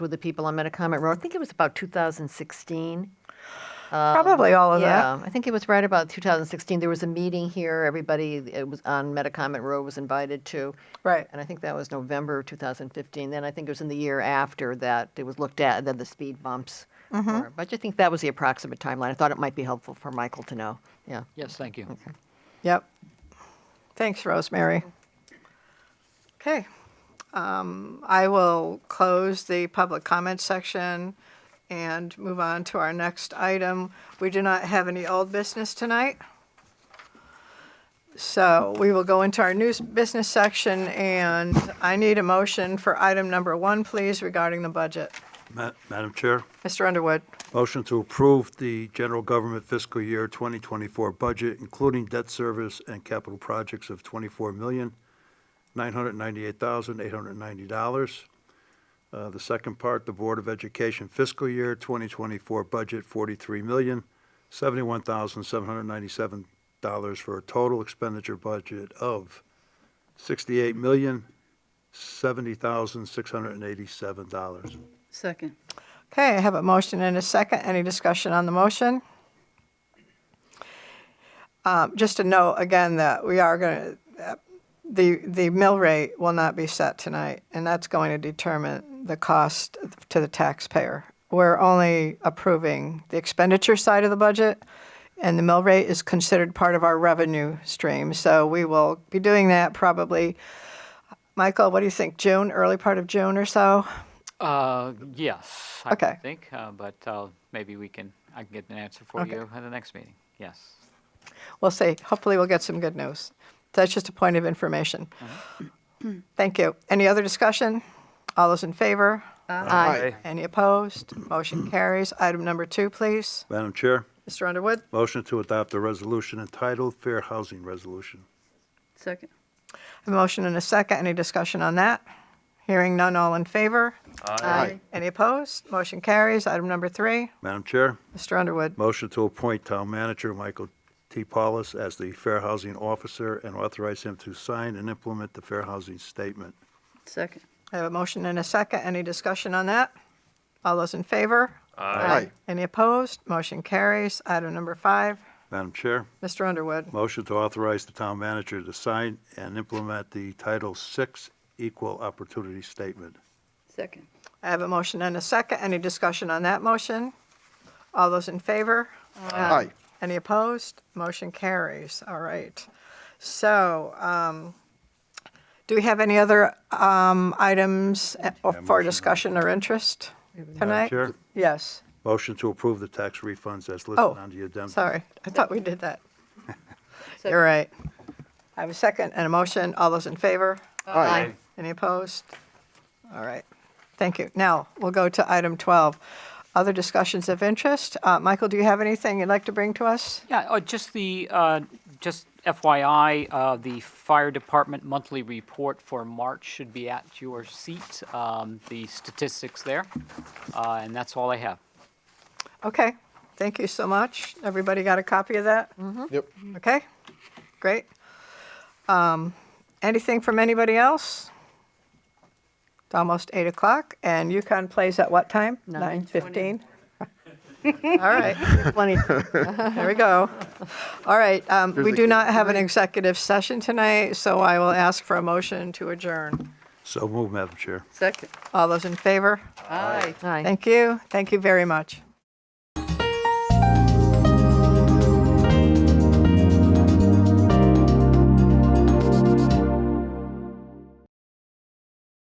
with the people on Metacomet Road. I think it was about 2016. Probably all of that. yeah, I think it was right about 2016. There was a meeting here. Everybody it was on Metacomet Road was invited to. Right. And I think that was November of 2015. Then I think it was in the year after that it was looked at, then the speed bumps. were. But I think that was the approximate timeline. I thought it might be helpful for Michael to know. Yeah. Yes, thank you. Yep. Thanks, Rosemary. Okay. Um, I will close the public comment section and move on to our next item. We do not have any old business tonight. So we will go into our news business section, and I need a motion for item number one, please, regarding the budget. Ma- Madam Chair, Mr. Underwood, motion to approve the general government fiscal year 2024 budget, including debt service and capital projects of $24,998,890. Uh, The second part, the Board of Education fiscal year 2024 budget, $43,071,797 for a total expenditure budget of $68,070,687. Second. Okay, I have a motion and a second. Any discussion on the motion? Um, Just to note again that we are going to, the, the mill rate will not be set tonight, and that's going to determine the cost to the taxpayer. We're only approving the expenditure side of the budget, and the mill rate is considered part of our revenue stream. So we will be doing that probably, Michael, what do you think, June, early part of June or so? Uh, Yes, I Okay. would think, uh, but uh, maybe we can, I can get an answer for you at the next meeting. Yes. We'll see. Hopefully, we'll get some good news. That's just a point of information. Uh-huh. Thank you. Any other discussion? All those in favor? Aye. Any opposed? Motion carries. Item number two, please. Madam Chair? Mr. Underwood? Motion to adopt a resolution entitled Fair Housing Resolution. Second. A motion and a second. Any discussion on that? Hearing none, all in favor? Aye. Any opposed? Motion carries. Item number three, Madam Chair, Mr. Underwood. motion to appoint Town Manager Michael T. Paulus as the Fair Housing Officer and authorize him to sign and implement the Fair Housing Statement. Second. I have a motion and a second. Any discussion on that? All those in favor? Aye. Any opposed? Motion carries. Item number five, Madam Chair, Mr. Underwood. motion to authorize the Town Manager to sign and implement the Title VI Equal Opportunity Statement. Second. I have a motion and a second. Any discussion on that motion? All those in favor? Aye. Any opposed? Motion carries. All right. So, um, do we have any other um, items uh, for discussion or interest Madam tonight? Chair, Yes, motion to approve the tax refunds as listed Oh, on the addendum. sorry. I thought we did that. Second. You're right. I have a second and a motion. All those in favor? Aye. Any opposed? All right, thank you. Now, we'll go to item 12, other discussions of interest. Uh, Michael, do you have anything you'd like to bring to us? Yeah, uh, just the, uh, just FYI, uh, the fire department monthly report for March should be at your seat, um, the statistics there. Uh, And that's all I have. Okay, thank you so much. Everybody got a copy of that? Yep. Okay, great. Um, Anything from anybody else? It's almost 8 o'clock, and UConn plays at what time? 9:15? All right. Plenty. There we go. All right, um, we There's a do not have an executive session tonight, so I will ask for a motion to adjourn. So move, Madam Chair. Second. All those in favor? Aye. Aye. Thank you. Thank you very much.